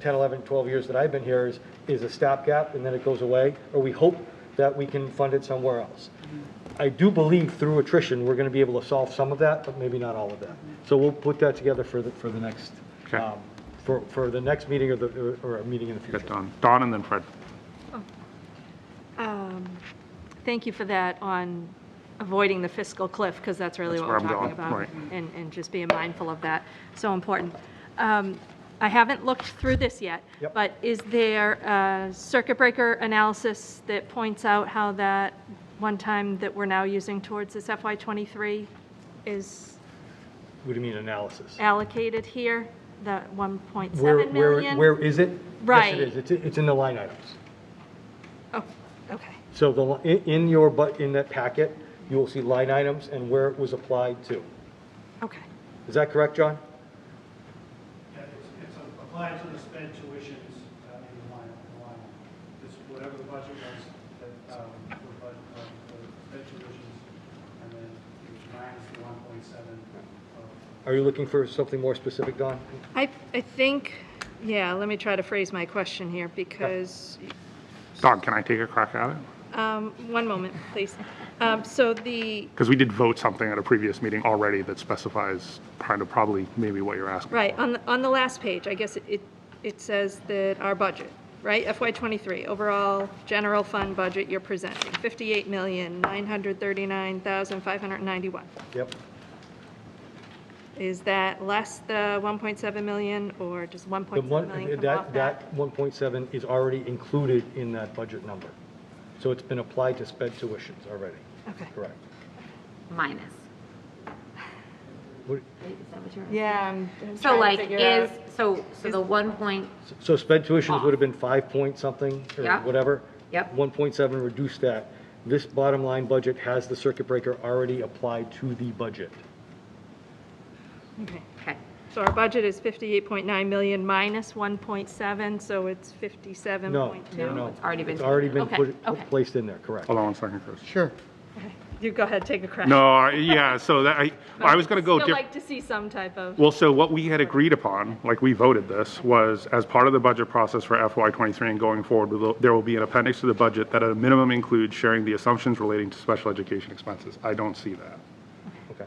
10, 11, 12 years that I've been here is, is a stopgap and then it goes away, or we hope that we can fund it somewhere else. Mm-hmm. I do believe through attrition, we're going to be able to solve some of that, but maybe not all of that. So we'll put that together for the, for the next, Okay. um, for, for the next meeting or the, or a meeting in the future. Got Don, Don and then Fred. Um, Thank you for that on avoiding the fiscal cliff, because that's really That's what where we're I'm talking going, about. right. And, and just being mindful of that, so important. Um, I haven't looked through this yet. Yep. But is there a circuit breaker analysis that points out how that one time that we're now using towards this FY '23 is What do you mean analysis? allocated here, the 1.7 Where, million? where, where is it? Right. Yes, it is. It's, it's in the line items. Oh, okay, So the, li- in, in your, but, in that packet, you will see line items and where it was applied to. okay, Is that correct, John? Yeah, it's, it's applied to the sped tuitions uh, in the line, in the line. It's whatever the budget was, that, um, the budget, uh, the sped tuitions, and then it's minus the one point seven of Are you looking for something more specific, Don? I, I think, yeah, let me try to phrase my question here, because, Don, can I take a crack at it? um, one moment, please. Um, So the, Because we did vote something at a previous meeting already that specifies kind of probably maybe what you're asking. right, on, the on the last page, I guess it- it, it says that our budget, right, FY '23, overall general fund budget you're presenting, 58939591 Yep. Is that less the 1.7 million, or does The 1.7 one, million come off that, that? that 1.7 is already included in that budget number. So it's been applied to sped tuitions already, Okay. correct? minus. What- Is that what you're? Yeah, I'm I'm So trying like, to figure is, out. so, so the one point, So sped tuitions would have been five point something or Yeah. whatever. Yep. 1.7 reduced that. This bottom line budget has the circuit breaker already applied to the budget. Okay. okay, So our budget is 58.9 million minus 1.7, so it's 57.2? No, no, no. It's already been It's already been taken. put, Okay, okay. placed in there, correct? Hold on one second, Chris. Sure. You go ahead, take a crack. No, I- yeah, so that, I, I was going to go. Still different. like to see some type of, Well, so what we had agreed upon, like we voted this, was as part of the budget process for FY '23 and going forward, we will- there will be an appendix to the budget that at a minimum includes sharing the assumptions relating to special education expenses. I don't see that. Okay.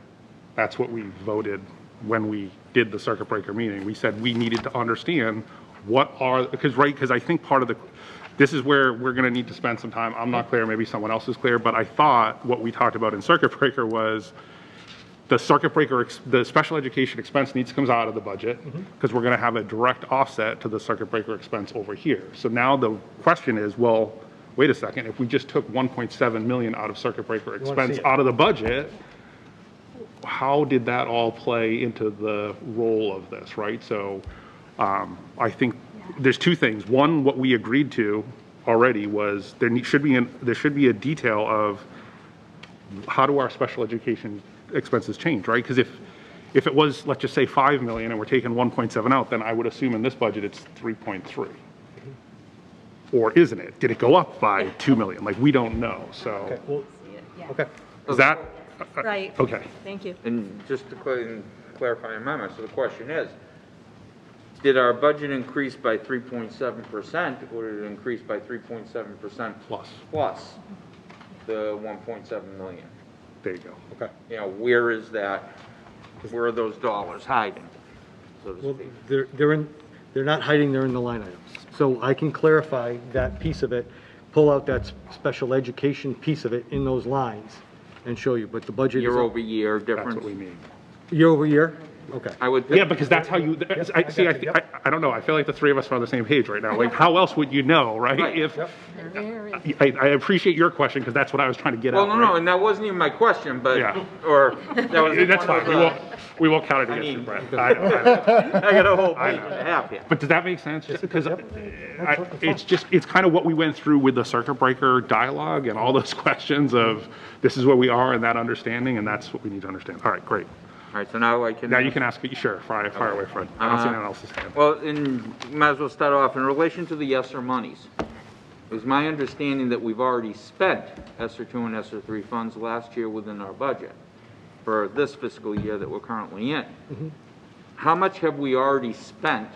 That's what we voted when we did the circuit breaker meeting. We said we needed to understand what are, because, right, because I think part of the, this is where we're going to need to spend some time. I'm not clear, maybe someone else is clear, but I thought what we talked about in circuit breaker was the circuit breaker, ex- the special education expense needs, comes out of the budget, Mm-hmm. because we're going to have a direct offset to the circuit breaker expense over here. So now the question is, well, wait a second, if we just took 1.7 million out of circuit breaker see expense it. out of the budget, how did that all play into the role of this, right? So um, I think there's two things. One, what we agreed to already was there ne- should be, an- there should be a detail of how do our special education expenses change, right? Because if, if it was, let's just say 5 million and we're taking 1.7 out, then I would assume in this budget it's 3.3. Or isn't it? Did it go up by 2 million? Like, we don't know, Okay, so. well, okay. Is that, right, okay. thank you. And just to cl- clarify in my mind, so the question is, did our budget increase by 3.7% or did it increase by 3.7%? Plus. Plus the 1.7 million? There you go. Okay. You know, where is that, where are those dollars hiding, so to Well, speak? they're, they're in, they're not hiding, they're in the line items. So I can clarify that piece of it, pull out that s- special education piece of it in those lines and show you, but the budget is. Year up- over year That's what we difference? mean. Year over year? Okay. I would Yeah, think, because that's how you, I, I see, I, got you, I yep. I don't know, I feel like the three of us are on the same page right now. Like, how else would you know, right? Right, If, I, I appreciate your question, because that's what I was trying to get at. well, no, no, right? and that wasn't even my question, but, Yeah. or, that was. That's fine, one of we the- won't, we won't count it I against you, mean- Brett. I know, I know. I got a whole page and a half here. But does that make sense? Just because yep. I- it's just, it's kind of what we went through with the circuit breaker dialogue and all those questions of this is where we are and that understanding, and that's what we need to understand. All right, great. All right, so now I can. Now you can ask, sure, fire, fire away, Fred. I Uh, don't see anyone else's hand. Well, and might as well start off, in relation to the ESSER monies, it was my understanding that we've already spent ESSER two and ESSER three funds last year within our budget for this fiscal year that we're currently in. How much have we already spent